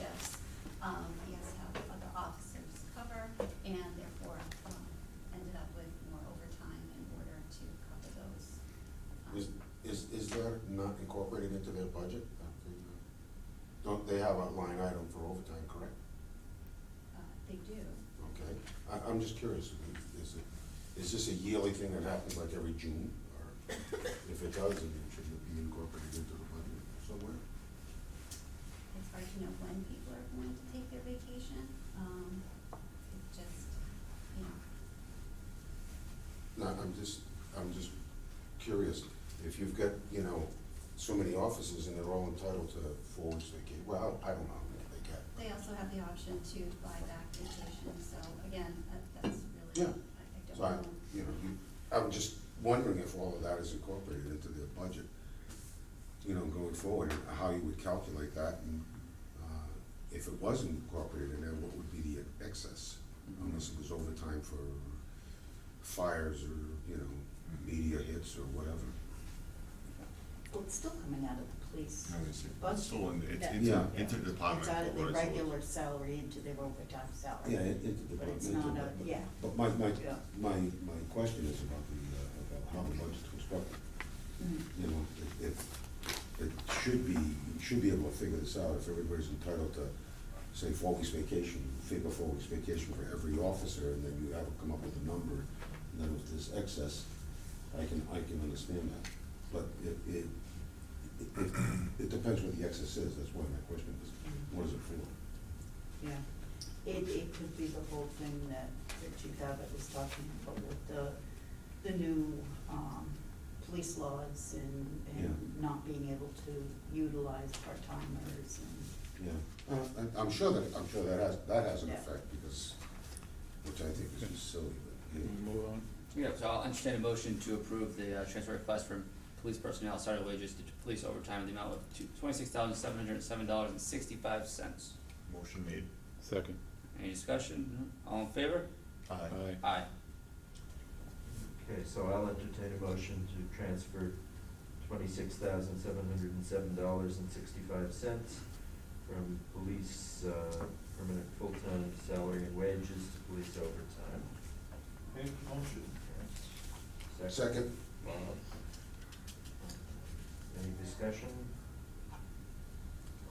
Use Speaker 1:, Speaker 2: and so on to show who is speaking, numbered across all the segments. Speaker 1: um, um, Um,
Speaker 2: time for overtime, correct?
Speaker 1: Uh, They do.
Speaker 2: Okay, I, I'm just curious, is it, is this a yearly thing that happens like every June? Or if it does, then it should be incorporated into the budget somewhere?
Speaker 1: It's hard to know when people are going to take their vacation. Um, It just, you know,
Speaker 2: No, I'm just, I'm just curious, if you've got, you know, so many offices and they're all entitled to four weeks vacation, well, I don't know, if they get.
Speaker 1: they also have the option to buy back vacation, so again, that, that's really, I I
Speaker 2: Yeah.
Speaker 1: don't
Speaker 2: So I,
Speaker 1: know.
Speaker 2: you know, you, I'm just wondering if all of that is incorporated into their budget, you know, going forward, and how you would calculate that, and, uh, if it was incorporated in there, what would be the excess?
Speaker 3: Mm-hmm.
Speaker 2: Unless it was overtime for fires or, you know, media hits or whatever.
Speaker 3: Well, it's still coming out of the police.
Speaker 4: No, it's,
Speaker 3: budget.
Speaker 4: it's still in, it's,
Speaker 3: That-
Speaker 4: it's
Speaker 2: Yeah.
Speaker 4: an interdepartmental.
Speaker 3: It's out of
Speaker 4: or
Speaker 3: their
Speaker 4: it's a-
Speaker 3: regular salary into their overtime salary.
Speaker 2: Yeah, it, it.
Speaker 3: But it's not a, yeah,
Speaker 2: But my, my,
Speaker 3: Yeah.
Speaker 2: my, my question is about the, uh, about how the budget's constructed.
Speaker 3: Mhm.
Speaker 2: you know, it, it, it should be, you should be able to figure this out if everybody's entitled to, say, four weeks vacation, figure four weeks vacation for every officer, and then you have to come up with a number, and then if there's excess, I can, I can understand that. But it, it, it- it, it depends what the excess is, that's why my question is, what is it for?
Speaker 3: yeah. It, it could be the whole thing that, that Chief Abbott was talking about with the, the new, um, police laws and, and
Speaker 2: Yeah.
Speaker 3: not being able to utilize part-timers
Speaker 2: Yeah, Uh, I, I'm sure that, I'm sure that has, that has an
Speaker 3: Yeah.
Speaker 2: effect, because, which I think is just silly, but, yeah.
Speaker 5: Move on.
Speaker 6: Yeah, so I'll entertain a motion to approve the uh, transfer request from police personnel, salary wages to police overtime in the amount of two- twenty-six thousand seven hundred and seven dollars and sixty-five cents.
Speaker 4: Motion made.
Speaker 5: Second.
Speaker 6: Any discussion? All in favor?
Speaker 5: Aye.
Speaker 6: Aye.
Speaker 7: Okay, so I'll entertain a motion to transfer twenty-six thousand seven hundred and seven dollars and sixty-five cents from police, uh, permanent full-time salary and wages to police overtime.
Speaker 8: Make the motion.
Speaker 7: Okay.
Speaker 2: Second,
Speaker 7: Bob. Any discussion?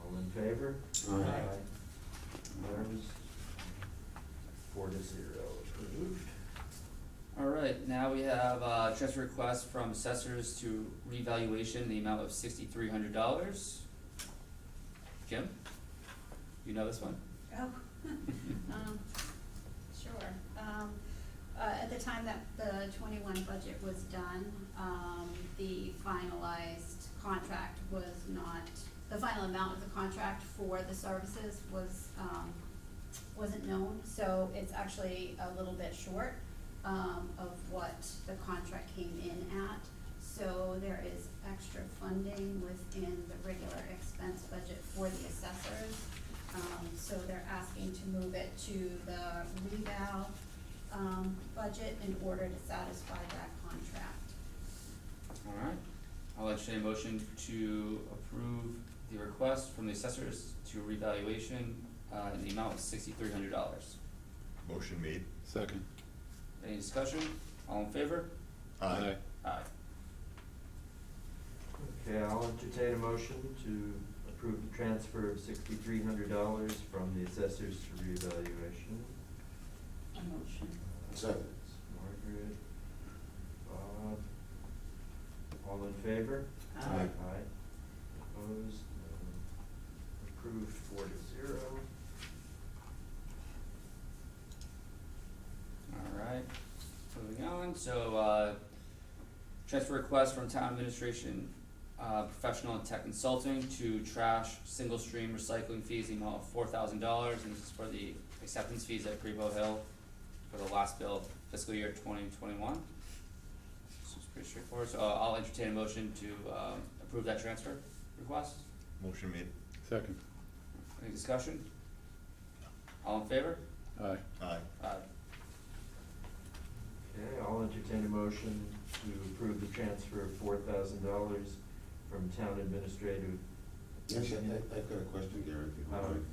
Speaker 7: All in favor?
Speaker 2: Aye. Aye.
Speaker 7: Opposed? Four to zero, approved.
Speaker 6: All right, now we have, uh, transfer request from assessors to revaluation, in the amount of sixty-three hundred dollars. Jim? You know this one?
Speaker 1: Oh, um, sure. Um, uh, at the time that the twenty-one budget was done, um, the finalized contract was not, the final amount of the contract for the services was, um, wasn't known, so it's actually a little bit short, um, of what the contract came in at. So there is extra funding within the regular expense budget for the assessors. Um, so they're asking to move it to the reval, um, budget in order to satisfy that contract.
Speaker 6: All right, I'll entertain a motion to approve the request from the assessors to revaluation, uh, in the amount of sixty-three hundred dollars.
Speaker 4: Motion made.
Speaker 5: Second.
Speaker 6: Any discussion? All in favor? Aye.
Speaker 7: Okay, I'll entertain a motion to approve the transfer of sixty-three hundred dollars from the assessors to reevaluation.
Speaker 3: and a motion.
Speaker 2: second.
Speaker 7: Margaret, Bob, all in favor?
Speaker 2: Aye.
Speaker 7: Aye. Opposed, None. Approved four to zero.
Speaker 6: All right, moving on, so, uh, transfer request from town administration, uh, professional and tech consulting to trash single stream recycling fees, the amount of four thousand dollars, and this is for the acceptance fees at Grebo Hill for the last bill of fiscal year twenty twenty-one. This is pretty straightforward, so uh, I'll entertain a motion to, um, approve that transfer request,
Speaker 4: Motion made.
Speaker 5: Second.
Speaker 6: any discussion? All in favor?
Speaker 5: Aye.
Speaker 4: Aye.
Speaker 6: Aye.
Speaker 7: Okay, I'll entertain a motion to approve the transfer of four thousand dollars from town administrative
Speaker 2: Actually, I, I've got a question, Gary, if you don't mind.